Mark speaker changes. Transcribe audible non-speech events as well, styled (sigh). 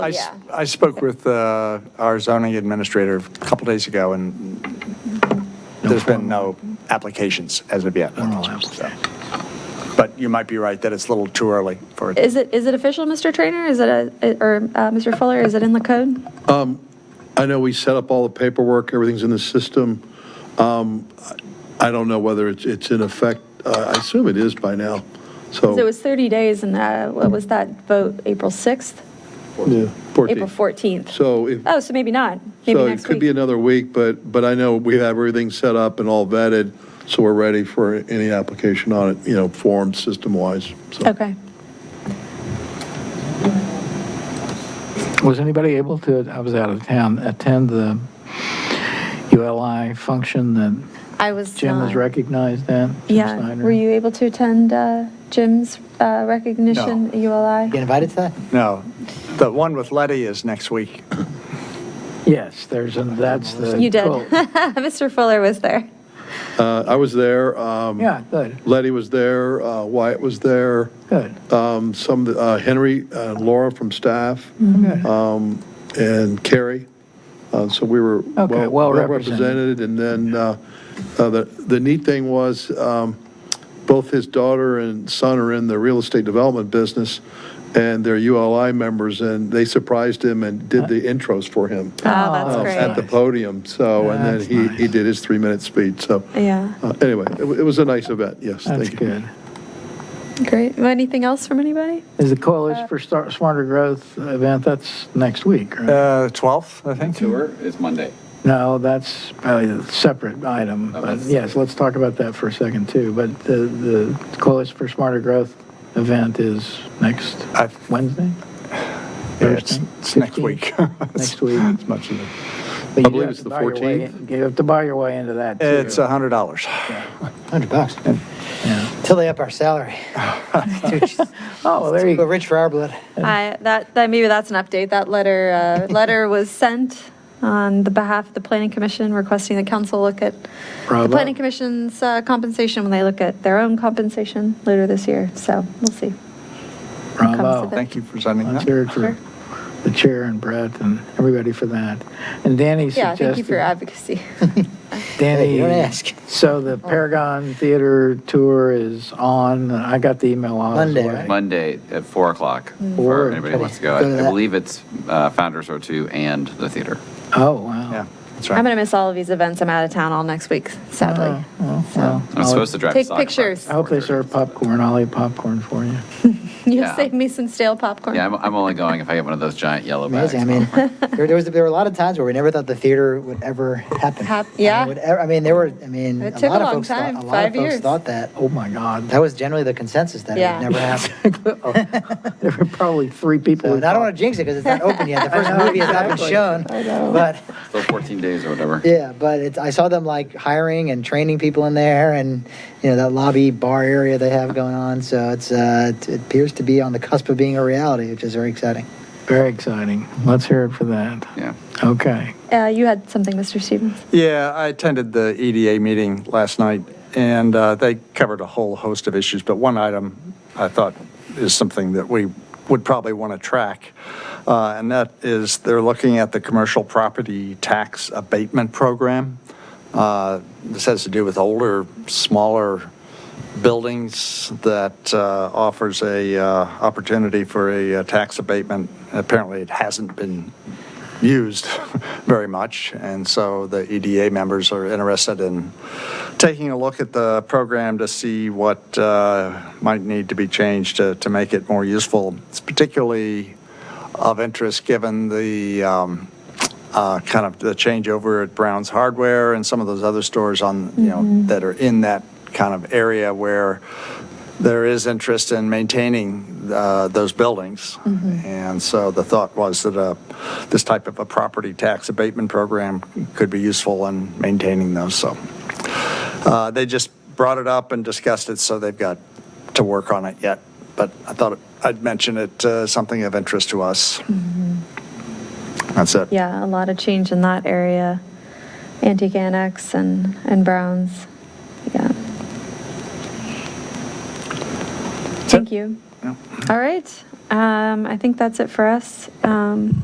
Speaker 1: I s-
Speaker 2: Yeah.
Speaker 1: I spoke with uh, our zoning administrator a couple days ago, and there's been no applications as of yet. so. But you might be right that it's a little too early for it.
Speaker 2: Is it, is it official, Mr. Trainer? Is it a, or uh, Mr. Fuller, is it in the code?
Speaker 3: I know we set up all the paperwork, everything's in the system. Um, I I don't know whether it's, it's in effect, Uh, I assume it is by now, so.
Speaker 2: So it was 30 days and uh, what was that vote, April 6th?
Speaker 3: Yeah, 14.
Speaker 2: April 14th?
Speaker 3: So if,
Speaker 2: Oh, so maybe not, maybe
Speaker 3: so
Speaker 2: next
Speaker 3: it could be
Speaker 2: week.
Speaker 3: another week, but, but I know we have everything set up and all vetted, so we're ready for any application on it, you know, formed system-wise, so.
Speaker 2: Okay.
Speaker 4: Was anybody able to, I was out of town, attend the ULI function that
Speaker 2: I was
Speaker 4: Jim was
Speaker 2: not-
Speaker 4: recognized at? Jim
Speaker 2: Yeah,
Speaker 4: Snyder?
Speaker 2: were you able to attend uh, Jim's uh, recognition at
Speaker 5: Get
Speaker 2: ULI?
Speaker 5: invited to that?
Speaker 1: No, the one with Letty is next week.
Speaker 4: Yes, there's, a- that's the.
Speaker 2: You did. (laughs)
Speaker 4: cool.
Speaker 2: Mr. Fuller was there.
Speaker 3: Uh, I was there, um,
Speaker 4: Yeah, good,
Speaker 3: Letty was there, uh, Wyatt was there,
Speaker 4: good.
Speaker 3: um, some, uh, Henry and Laura from staff. um,
Speaker 4: good.
Speaker 3: and Kerry. Uh, So we were
Speaker 4: Okay,
Speaker 3: well
Speaker 4: well
Speaker 3: well
Speaker 4: represented.
Speaker 3: represented. And then uh, uh, the the neat thing was, um, both his daughter and son are in the real estate development business, and they're ULI members, and they surprised him and
Speaker 4: Uh.
Speaker 3: did the intros for him
Speaker 2: Oh, that's
Speaker 3: um, at the
Speaker 2: great.
Speaker 3: podium. So, and then
Speaker 4: That's
Speaker 3: he he
Speaker 4: nice.
Speaker 3: did his three-minute speech. So
Speaker 2: Yeah,
Speaker 3: uh, anyway, it wa- it was a nice event, yes.
Speaker 4: That's
Speaker 3: thank you.
Speaker 4: good.
Speaker 2: great. Anything else from anybody?
Speaker 4: Is the Coalition for Star- Smarter Growth event, that's next week, right?
Speaker 1: Uh, 12th, I think.
Speaker 6: tour is Monday.
Speaker 4: No, that's probably a separate item.
Speaker 6: Oh,
Speaker 4: but
Speaker 6: that's-
Speaker 4: Yes, let's talk about that for a second, too. But the, the Coalition for Smarter Growth event is next
Speaker 1: I-
Speaker 4: Wednesday?
Speaker 1: Yeah, It's
Speaker 4: Thursday?
Speaker 1: it's next
Speaker 4: 15th?
Speaker 1: week.
Speaker 4: Next week.
Speaker 1: As much as it-
Speaker 4: But you do
Speaker 3: believe
Speaker 4: have
Speaker 3: it's
Speaker 4: to
Speaker 3: the
Speaker 4: buy your way
Speaker 3: 14th.
Speaker 4: in- You have to buy your way into that, too.
Speaker 1: (laughs) It's $100.
Speaker 5: 100 bucks.
Speaker 4: Yeah.
Speaker 5: Till they up our salary.
Speaker 4: Oh, well, there you
Speaker 5: But
Speaker 4: go.
Speaker 5: rich for our blood.
Speaker 2: I, that, that, maybe that's an update. That letter, uh, letter was sent on the behalf of the planning commission requesting the council look at the
Speaker 4: Bravo.
Speaker 2: planning commission's uh, compensation when they look at their own compensation later this year. So we'll see. comes
Speaker 4: Bravo.
Speaker 2: with it.
Speaker 1: Thank you for sending
Speaker 4: I
Speaker 1: that.
Speaker 4: cheered
Speaker 2: Sure.
Speaker 4: for the chair and Brett and everybody for that. And Danny
Speaker 2: Yeah, thank you for your
Speaker 4: suggested,
Speaker 2: advocacy.
Speaker 4: Danny.
Speaker 5: Hey, you don't ask.
Speaker 4: So the Paragon Theater tour is on. I got the email on.
Speaker 5: Monday, right?
Speaker 6: Monday at 4 o'clock,
Speaker 4: Four.
Speaker 6: for anybody who wants to go.
Speaker 5: Go to
Speaker 6: I
Speaker 5: that.
Speaker 6: I believe it's uh, Founders O2 and the theater.
Speaker 4: Oh, wow.
Speaker 1: Yeah, that's
Speaker 2: I'm going
Speaker 1: right.
Speaker 2: to miss all of these events. I'm out of town all next week, sadly.
Speaker 4: Oh, well.
Speaker 6: I'm supposed to drive.
Speaker 2: Take
Speaker 6: to soccer
Speaker 2: pictures.
Speaker 6: practice
Speaker 4: I hope they
Speaker 6: at 4:30.
Speaker 4: serve popcorn. I'll eat popcorn for you.
Speaker 2: (laughs) You'll
Speaker 6: Yeah.
Speaker 2: save me some stale popcorn.
Speaker 6: Yeah, I'm, I'm only going if I get one of those giant yellow bags.
Speaker 5: Amazing. I mean, there, there was, there were a lot of times where we never thought the theater would ever happen.
Speaker 2: Hap-
Speaker 5: I mean,
Speaker 2: yeah.
Speaker 5: would ever- I mean, there were, I mean,
Speaker 2: It
Speaker 5: a
Speaker 2: took a
Speaker 5: lot of
Speaker 2: long
Speaker 5: folks thought,
Speaker 2: time,
Speaker 5: a lot
Speaker 2: five
Speaker 5: of folks
Speaker 2: years.
Speaker 5: thought that.
Speaker 4: Oh, my God.
Speaker 5: That was generally the consensus that
Speaker 2: Yeah.
Speaker 5: it
Speaker 2: (laughs)
Speaker 5: would never happen.
Speaker 4: (laughs) There were probably three people.
Speaker 5: So,
Speaker 4: who
Speaker 5: And I don't want
Speaker 4: thought-
Speaker 5: to jinx it because it's not
Speaker 2: (laughs)
Speaker 5: open yet. The first movie has not been shown. But,
Speaker 6: Still 14 days or whatever.
Speaker 5: yeah, but it's, I saw them like hiring and training people in there and, you know, that lobby bar area they have going on. So it's, uh, it appears to be on the cusp of being a reality, which is very exciting.
Speaker 4: Very exciting. Let's hear it for that.
Speaker 6: Yeah.
Speaker 4: Okay.
Speaker 2: Uh, You had something, Mr. Stevens?
Speaker 1: Yeah, I attended the EDA meeting last night, and uh, they covered a whole host of issues, but one item I thought is something that we would probably want to track, uh, and that is they're looking at the commercial property tax abatement program. Uh, This has to do with older, smaller buildings that uh, offers a uh, opportunity for a uh, tax abatement. Apparently, it hasn't been used (laughs) very much, and so the EDA members are interested in taking a look at the program to see what uh, might need to be changed to, to make it more useful. It's particularly of interest given the um, uh, kind of the changeover at Brown's Hardware and some of those other stores on, you know, that are in that kind of area where there is interest in maintaining uh, those buildings. And so the thought was that uh, this type of a property tax abatement program could be useful in maintaining those, so. uh, They just brought it up and discussed it, so they've got to work on it yet. But I thought I'd mention it, uh, something of interest to us. That's it.
Speaker 2: Yeah, a lot of change in that area, Antique Annex and, and Browns. Yeah. Thank you. All right. Um, I think that's it for us. Um,